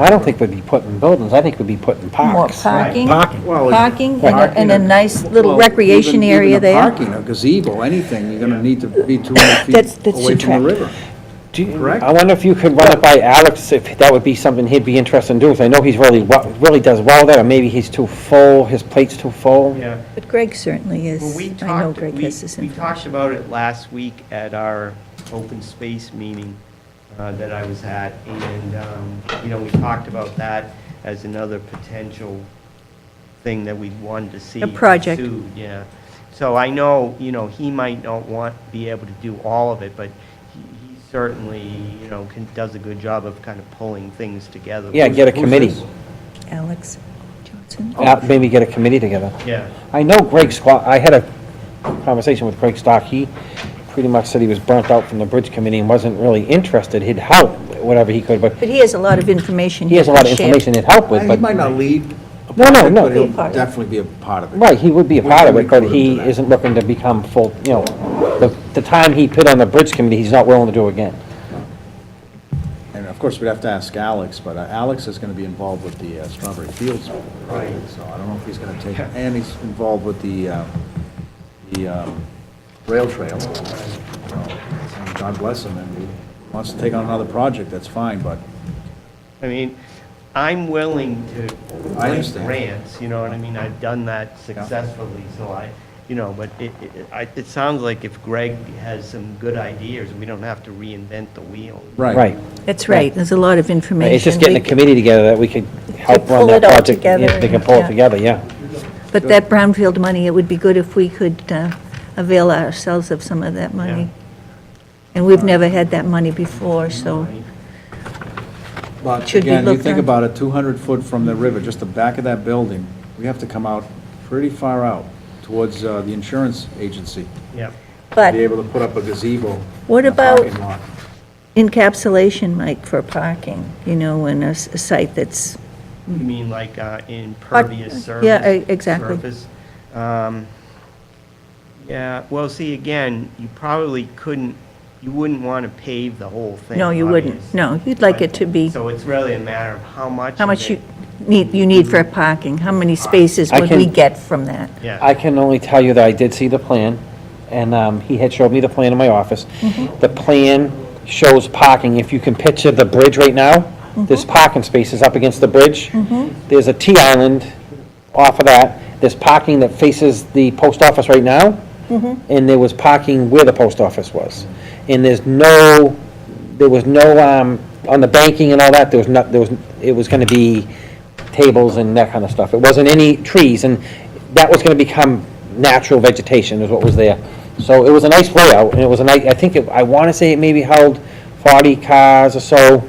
I don't think we'd be putting buildings, I think we'd be putting More parks. parking, Parking. Well, parking, and Parking a- and a nice little Well, recreation even- even area a there. Parking, a gazebo, anything, you're gonna need to be 200 That's- feet that's away too from the trapped. river. Do you- Correct. I wonder if you could run it by Alex, if that would be something he'd be interested in doing, 'cause I know he's really, wa- really does well there, or maybe he's too full, his plate's too full. Yeah. But Greg certainly Well, we is, I know talked, Greg we, has this we info. talked about it last week at our open space meeting uh, that I was at, and, um, you know, we talked about that as another potential thing that we wanted to see. A project. pursued, Yeah. So I know, you know, he might not want, be able to do all of it, but he he certainly, you know, can, does a good job of kind of pulling things together. Yeah, get a Who's committee, this? Alex Johnson? Uh, maybe get a committee together. Yeah. I know Greg Scott, I had a conversation with Greg Stock, he pretty much said he was burnt out from the bridge committee and wasn't really interested, he'd help, whatever he could, but But he has a lot of information. he has a lot of can share. information he'd help with, Uh, He but, might not lead a No, no, project, no. but Be a he'll part of it. definitely be a part of it. right, he would be a We- part of we it, but include him to he that. isn't looking to become full, you know, the, the time he put on the bridge committee, he's not willing to do again. And of course, we'd have to ask Alex, but uh, Alex is gonna be involved with the uh, Strawberry Fields. Right. So I don't know if he's gonna take, and he's involved with the, uh, the um, rail trail. And God bless him, and he wants to take on another project, that's fine, but I mean, I'm willing to I write understand. grants, you know what I mean? I've done that successfully, so I, you know, but it, it, I- it sounds like if Greg has some good ideas, we don't have to reinvent the wheel. Right. Right. That's right, there's a lot of information. It's just getting a We- committee together that we could help pull run that it all project. together Yeah, They can and- pull it yeah. together, yeah. But that brownfield money, it would be good if we could uh, avail ourselves of some of that money. And we've never had that money before, so, But Should be again, you looked think at. about it, 200 foot from the river, just the back of that building, we have to come out pretty far out towards uh, the insurance agency Yep. to be but able to put up a gazebo. What and a about- parking lot. encapsulation, Mike, for parking, you know, in a s- a site that's, You mean like uh, impervious surface? Hmm. yeah, e- exactly. surface? Um, Yeah, well, see, again, you probably couldn't, you wouldn't want to pave the whole thing. no, you wouldn't, obviously. no, you'd like it to be, So it's really a matter of how much. how of much it- you need, you need for parking, how many spaces I would we can- get from that? Yeah. I can only tell you that I did see the plan, and um, he had showed me the plan in my office. The plan shows parking, if you can picture the bridge right now, there's parking spaces up against the bridge. There's a T-island off of that, there's parking that faces the post office right now, and there was parking where the post office was. And there's no, there was no, um, on the banking and all that, there was not, there was, it was gonna be tables and that kind of stuff. It wasn't any trees, and that was gonna become natural vegetation is what was there. So it was a nice layout, and it was a nice, I think, it- I wanna say it maybe held forty cars or so,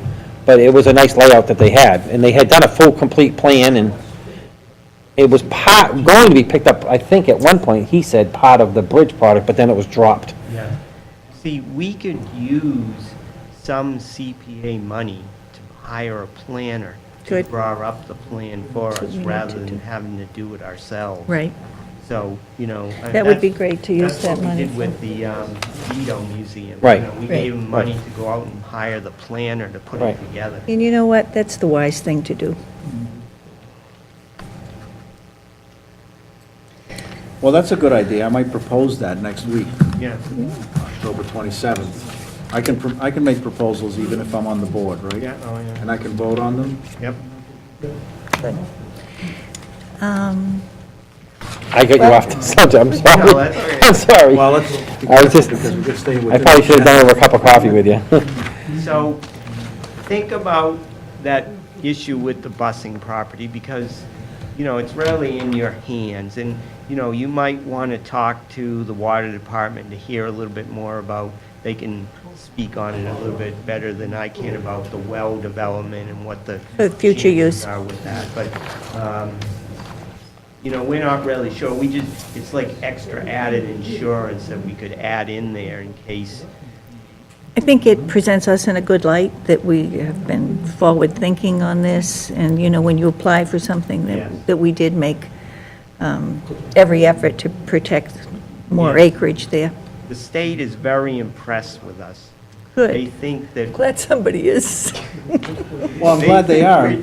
but it was a nice layout that they had, and they had done a full, complete plan, and it was part, going to be picked up, I think at one point, he said part of the bridge product, but then it was dropped. Yeah. See, we could use some CPA money to hire a planner to Good. draw up the plan for us we need to rather do. than having to do it ourselves. Right, So, you know. I- That would be that's- great to use that money That's for. what we did with the um, Vito Museum. You Right. know, We Right. gave them money to go out and hire the planner to put it Right. together. and you know what, that's the wise thing to do. Well, that's a good idea, I might propose that next week, Yeah. October 27th. I can, pro- I can make proposals even if I'm on the board, right? Yeah, oh, yeah. And I can vote on them? Yep. Um, I got you off the subject, I'm No, sorry. that's all right. I'm sorry. Well, let's, I was just, because we could stay I within. probably should have done it over a cup of coffee with you. So think about that issue with the busing property because, you know, it's really in your hands. And, you know, you might want to talk to the water department to hear a little bit more about, they can speak on it a little bit better than I can about the well development and what the. For future changes use. Are with that, but, um, you know, we're not really sure, we just, it's like extra added insurance that we could add in there in case, I think it presents us in a good light that we have been forward-thinking on this, and, you know, when you apply for something, Yes. that that we did make um, every effort to protect more Yes. acreage there. the state is very impressed with us. They Good. think that Glad somebody is. Well, I'm glad they are.